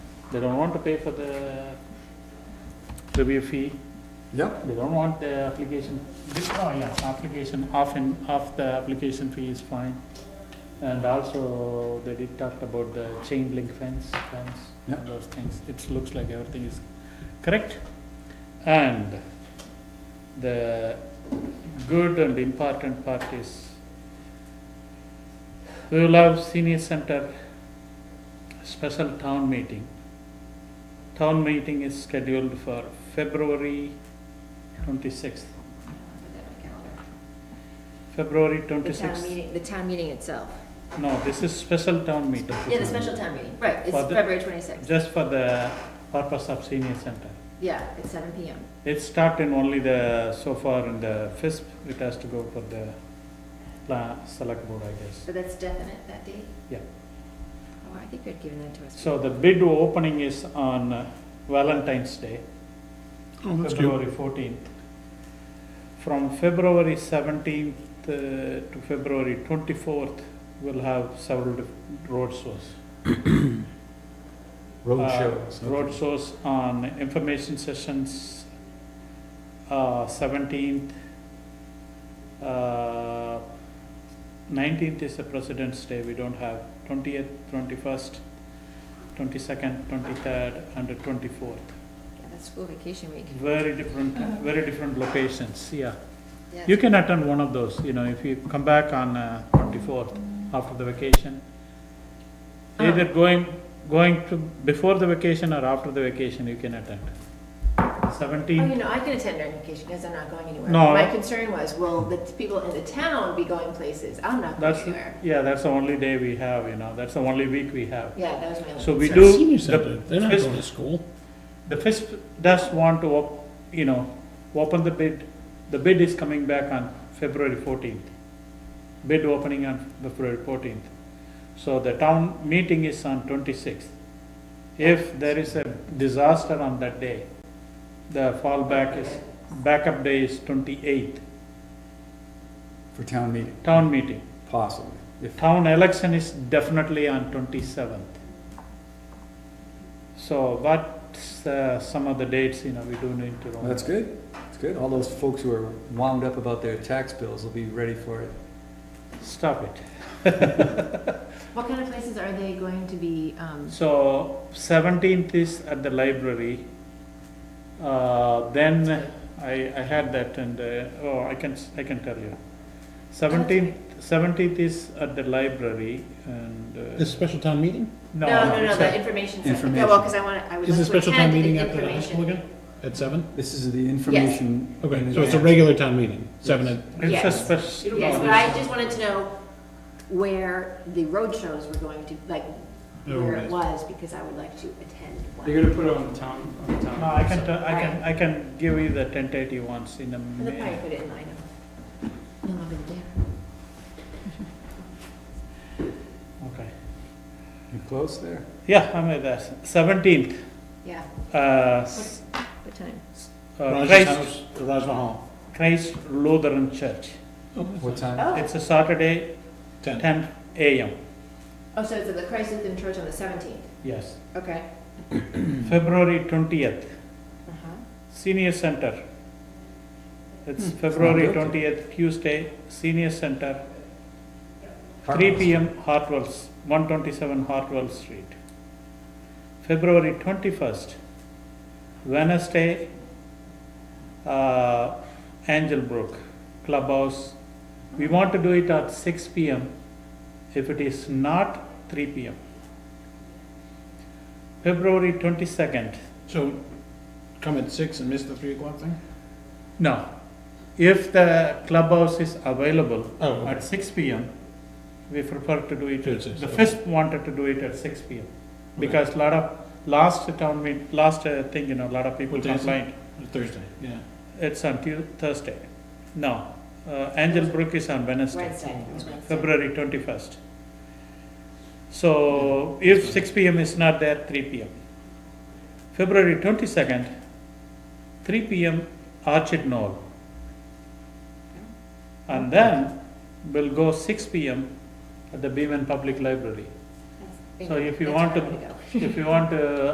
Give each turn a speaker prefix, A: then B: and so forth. A: They don't want to pay for the review fee,
B: Yep,
A: they don't want the application, oh yeah, application, half in, half the application fee is fine. And also, they did talk about the chain link fence, fence,
B: Yeah.
A: and those things, it looks like everything is correct. And the good and important part is, we will have senior center special town meeting. Town meeting is scheduled for February twenty-sixth, February
C: The town
A: twenty-sixth.
C: meeting, the town meeting itself.
A: No, this is special town meeting.
C: Yeah, the special town meeting, right, it's
A: For the-
C: February twenty-sixth.
A: Just for the purpose of senior center.
C: Yeah, it's seven PM.
A: It's started in only the, so far in the FISP, it has to go for the pla- select board, I guess.
C: So that's definite, that date?
A: Yeah.
C: Oh, I think they'd given that to us.
A: So the bid opening is on uh, Valentine's Day, February fourteenth. From February seventeenth uh, to February twenty-fourth, we'll have several dif- road shows.
B: road
A: uh,
B: shows.
A: Road shows on information sessions, uh, seventeenth, uh, nineteenth is the President's Day, we don't have, twentieth, twenty-first, twenty-second, twenty-third, and the twenty-fourth.
C: Yeah, that's school vacation week.
A: Very different, very different locations, yeah.
C: Yeah.
A: You can attend one of those, you know, if you come back on uh, 24th after the vacation. Either going, going to, before the vacation or after the vacation, you can attend.
D: Oh,
A: 17,
D: you know, I can attend during vacation because I'm not going anywhere.
A: No.
D: My concern was, will the people in the town be going places? I'm not going
A: that's,
D: anywhere.
A: yeah, that's the only day we have, you know, that's the only week we have.
D: Yeah, that was my only
A: So we
D: concern.
A: do.
E: Senior
A: the
E: center, they're not
A: FISP
E: going to school.
A: The FISP does want to, op- you know, open the bid, the bid is coming back on February fourteenth. Bid opening on February fourteenth. So the town meeting is on twenty-sixth. If there is a disaster on that day, the fallback is, backup day is twenty-eighth,
B: For town meeting,
A: town meeting.
B: possibly. If,
A: Town election is definitely on twenty-seventh. So what's uh, some of the dates, you know, we do need to.
B: well, that's good, that's good. All those folks who are wound up about their tax bills will be ready for it.
A: Stop it.
D: What kind of places are they going to be, um,
A: So seventeenth is at the library. Uh, then I, I had that and, uh, oh, I can, s- I can tell you. Seventeenth, seventeenth is at the library and. uh,
E: This special town meeting?
A: No,
D: no, no, no,
A: it's
D: the
A: at-
D: information session. Yeah,
B: Information.
D: well, because I want to, I would
E: Is the
D: like to
E: special town
D: attend
E: meeting
D: the
E: after the high school
D: information.
E: again? At seven?
B: This is the information.
E: Okay,
B: in
E: so it's a
B: advance.
E: regular town meeting, seven at,
A: It's a
D: Yes.
A: special.
D: Yes, but I just wanted to know where the road shows were going to, like,
E: Oh,
D: where it
E: right.
D: was, because I would like to attend one.
F: They're gonna put it on the town, on the town.
A: No, I can, tell- I can, I can give you the tentative ones in a
D: And they'll probably
A: minute.
D: put it in line up. No longer than there.
A: Okay.
B: You close there?
A: Yeah, I'm at that. Seventeenth,
D: Yeah,
A: uh, s-
C: What time?
A: uh,
E: Raj's
A: Christ,
E: house, the Rajma Hall.
A: Christ Lutheran Church.
E: Oh,
B: What
E: that's
B: time?
D: oh,
A: It's a Saturday,
E: Ten.
A: 10 a.m.,
D: oh, so it's at the Christ Lutheran Church on the seventeenth,
A: yes.
D: okay.
A: February 20th,
D: Uh-huh.
A: senior center. It's February
B: not bad.
A: 20th, Tuesday, senior center, 3
B: Hartwell's.
A: p.m. Hartwell's, 127 Hartwell Street. February 21st, Wednesday, uh, Angel Brook Clubhouse. We want to do it at 6 p.m. if it is not 3 p.m. February 22nd,
E: So come at six and miss the three o'clock thing?
A: No. If the clubhouse is available
E: Oh, okay.
A: at six P M, we prefer to do it,
E: Till six,
A: the
E: okay.
A: FISP wanted to do it at six P M. Because lot of, last town meet, last uh, thing, you know, lot of people
E: What day is it?
A: complained.
E: Thursday, yeah.
A: It's on Tu- Thursday. No, uh, Angel Brook is on Wednesday,
D: Wednesday, it was Wednesday.
A: February twenty-first. So if six P M is not there, three P M. February twenty-second, three P M, Archid Knoll. And then we'll go six P M at the Beaman Public Library.
D: That's-
A: So if you
D: that's
A: want
D: where
A: to-
D: I'm gonna go.
A: If you want uh, to